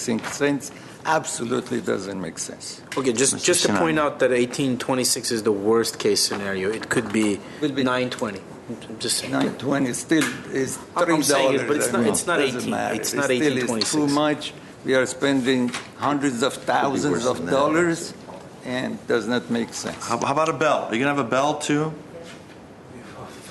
think sense absolutely doesn't make sense. Okay, just, Mr. just to point Sinani. out that eighteen twenty-six is the worst case scenario. It could be Will be- nine twenty. Just saying. 920 still is I'm- $3. I'm saying it, but it's not- I mean, it's not doesn't 18, matter. it's It not still is 1826. Too much. We are spending hundreds of thousands worse of than that. dollars and does not make sense. How, how about a bell? Are you gonna have a bell too?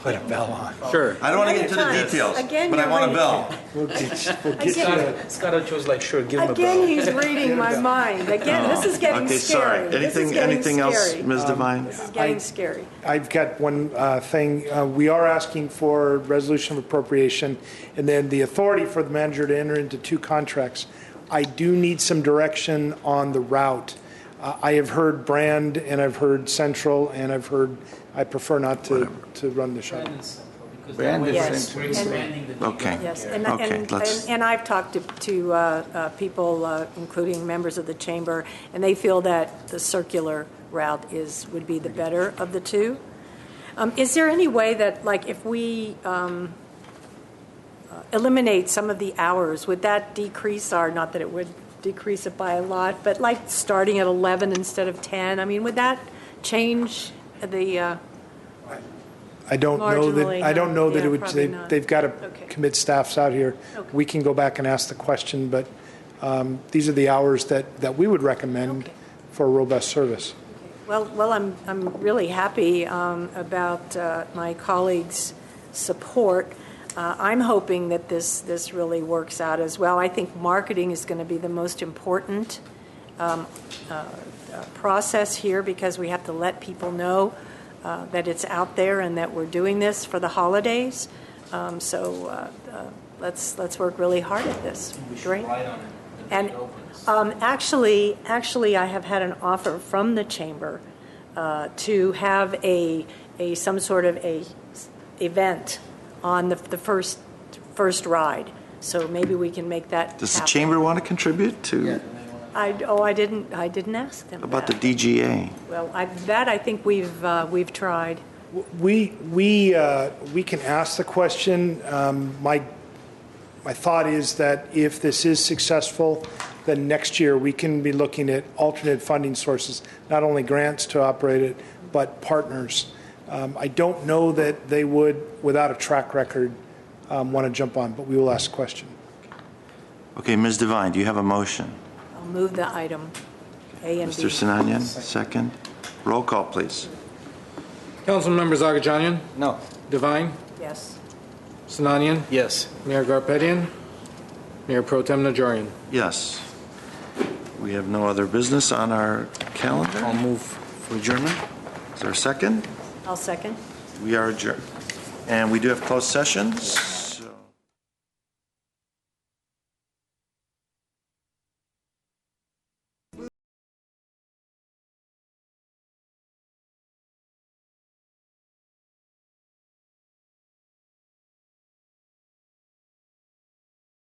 Put a bell on. Sure. I don't want to get Another into the time. details, Again, but I you're want a right. bell. We'll get, we'll get you. Again, a- Scott was like, sure, give him a again, bell. he's reading my mind. Again, this is getting Okay, scary. sorry. This is Anything, getting anything else, scary. Um, Ms. Devine? This is getting scary. I've got one uh, thing. Uh, We are asking for resolution of appropriation and then the authority for the manager to enter into two contracts. I do need some direction on the route. Uh, I have heard Brand and I've heard Central and I've heard, I prefer not to, to run the shuttle. Brand is Yes. central. Okay. Yes, and, Okay, and, let's- and- and I've talked to, to uh, uh, people, uh, including members of the chamber, and they feel that the circular route is, would be the better of the two. Um, Is there any way that, like, if we um, uh, eliminate some of the hours, would that decrease our, not that it would decrease it by a lot, but like starting at 11 instead of 10? I mean, would that change the, uh, I don't know that, Marginally, I don't know that yeah, it would, probably they- not. they've got to Okay. commit staffs out here. Okay. We can go back and ask the question, but um, these are the hours that, that we would recommend Okay. for robust service. Well, well, I'm, I'm really happy um, about uh, my colleagues' support. Uh, I'm hoping that this, this really works out as well. I think marketing is going to be the most important um, uh, uh, process here because we have to let people know uh, that it's out there and that we're doing this for the holidays. Um, So uh, uh, let's, let's work really hard at this. Great. And um, actually, actually, I have had an offer from the chamber uh, to have a, a, some sort of a s- event on the, the first, first ride. So maybe we can make that Does the happen. chamber want to contribute to, I, oh, I didn't, I didn't ask them about the that. DGA? Well, I, that I think we've, uh, we've tried. We, we, uh, we can ask the question. Um, My, my thought is that if this is successful, then next year we can be looking at alternate funding sources, not only grants to operate it, but partners. Um, I don't know that they would, without a track record, want to jump on, but we will ask the question. Okay, Ms. Devine, do you have a motion? I'll move the item, A and B. Mr. Sinanian, second. Roll call, please. Council members Agajanian, No, Devine, Yes. Sinanian, Yes. Mayor Garpetian, Mayor Pro Tem Najarian. Yes. We have no other business on our calendar. I'll move for adjournment. Is there a second? I'll second. We are adjourned. And we do have closed sessions.